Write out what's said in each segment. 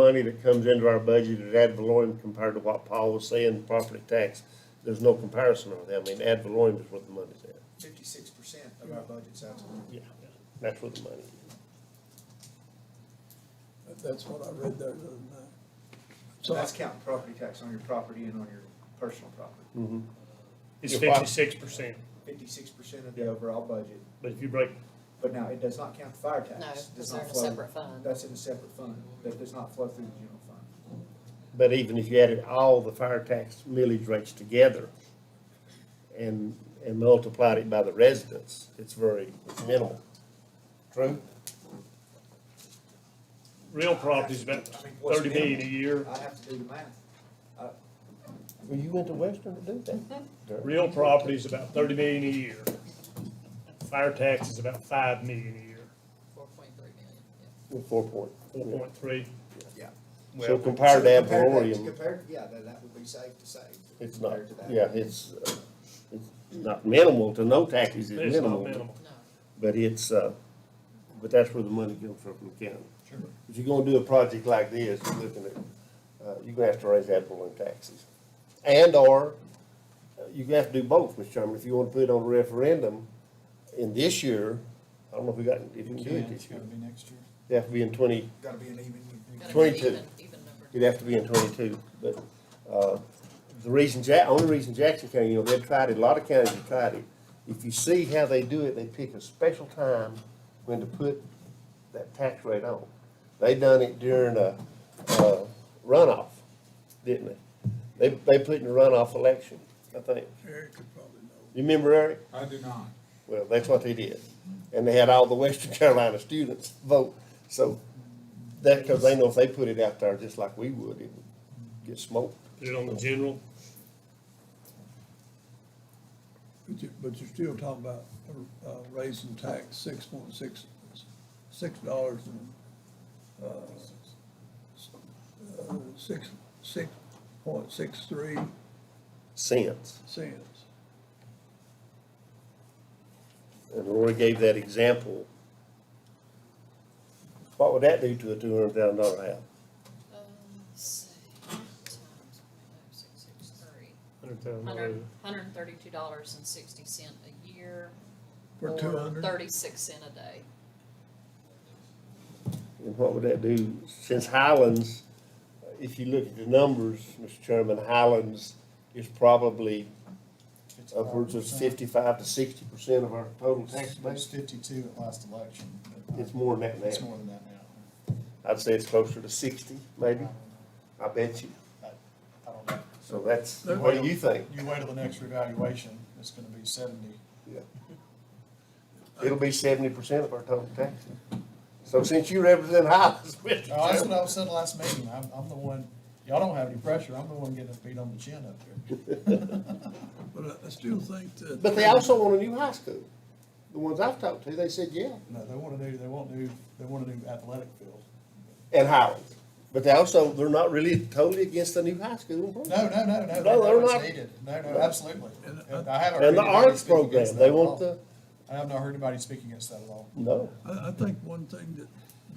money that comes into our budget at ad valorem compared to what Paul was saying, property tax, there's no comparison on that. I mean, ad valorem is where the money's at. Fifty-six percent of our budget's out. Yeah. That's where the money is. That- That's what I read there the other night. So So that's I- counting property tax on your property and on your personal property. Hmm. It's If I- fifty-six percent, Fifty-six percent of the overall budget, but if you break, but now it does not count the fire tax. No, Does because not they're in a flow- separate fund. That's in a separate fund, that does not flow through the general fund. But even if you added all the fire tax millage rates together and, and multiplied it by the residents, it's very minimal. True. real property's about I mean, what's thirty million a minimal? year, I have to do the math. Well, you went to Western to do that. real property's about thirty million a year. Fire tax is about five million a year, Four point three million, yeah. Four point. four point three. Yeah. So Well, compared to ad So compare that to- valorem, Compare, yeah, then that would be safe to say. it's not, compared to that. yeah, it's, uh, it's not minimal to no taxes, it's it's not minimal. minimal. No, But it's, uh, but that's where the money comes from from the county. Sure. If you're gonna do a project like this, you're looking at, uh, you're gonna have to raise ad valorem taxes. And or, uh, you have to do both, Mr. Chairman, if you wanna put it on a referendum in this year, I don't know if we got, if we can do it this year. be next year. It'd have to be in twenty, Gotta be an even. gotta be 22. even, even numbered. it'd have to be in twenty-two, but, uh, the reason Ja- only reason Jackson County, you know, they've tried it, a lot of counties have tried it. If you see how they do it, they pick a special time when to put that tax rate on. They done it during a, uh, runoff, didn't they? They, they put in a runoff election, I think. Eric could probably know. You remember, Eric? I do not. Well, that's what they did. And they had all the Western Carolina students vote. So that, because they know if they put it out there just like we would, it would get smoked. Put it on the general, But you, but you're still talking about, uh, raising tax six point six, six dollars and, uh, s- uh, six, six point six three Cents. cents. And Lori gave that example. What would that do to a two hundred thousand dollar house? Um, let's see, times point oh six six three. hundred thousand dollars. Hundred, hundred and thirty-two dollars and sixty cent a year. For or 200? Thirty-six cent a day. And what would that do? Since Highlands, if you look at the numbers, Mr. Chairman, Highlands is probably upwards of fifty-five to sixty percent of our total tax It was base. fifty-two at last election. but It's more than that It's now. more than that now. I'd say it's closer to sixty, maybe. I bet you. I don't know. So that's, what do you think? You wait till the next revaluation, it's gonna be seventy. Yeah. It'll be seventy percent of our total taxes. So since you represent Highlands, Mr. No, that's Chairman. what I was saying last meeting, I'm, I'm the one, y'all don't have any pressure, I'm the one getting beat on the chin up there. But I, I still think that. But they also want a new high school. The ones I've talked to, they said, yeah, No, they wanna do, they want to, they want to do athletic field. and Highlands. But they also, they're not really totally against the new high school. in Brunswick. No, no, no, No, no, they're no, it's not. needed, no, no, absolutely. And And I haven't. heard And the anybody arts speak against program, that they at all. want the, I have not heard anybody speak against that at all. no. I, I think one thing that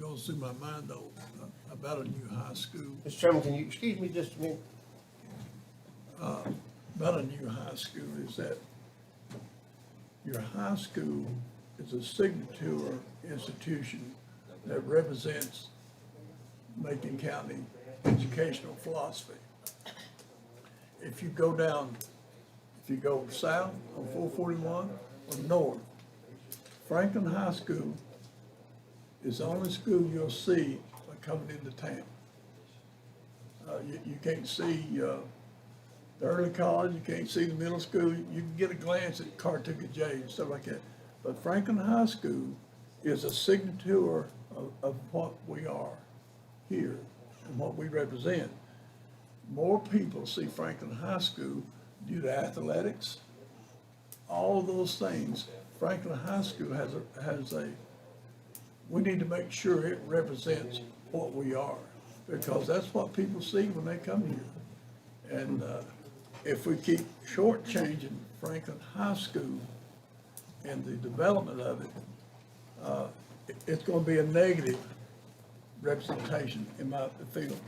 goes through my mind though, uh, about a new high school, Mr. Chairman, can you, excuse me just a minute? about a new high school is that your high school is a signature institution that represents Macon County educational philosophy. If you go down, if you go south on four forty-one or north, Franklin High School is the only school you'll see coming into town. Uh, you, you can't see, uh, the early college, you can't see the middle school, you can get a glance at Cartucket J and stuff like that. But Franklin High School is a signature of, of what we are here and what we represent. More people see Franklin High School due to athletics, all of those things. Franklin High School has a, has a, we need to make sure it represents what we are, because that's what people see when they come here. And uh, if we keep shortchanging Franklin High School and the development of it, uh, it- it's going to be a negative representation in my field.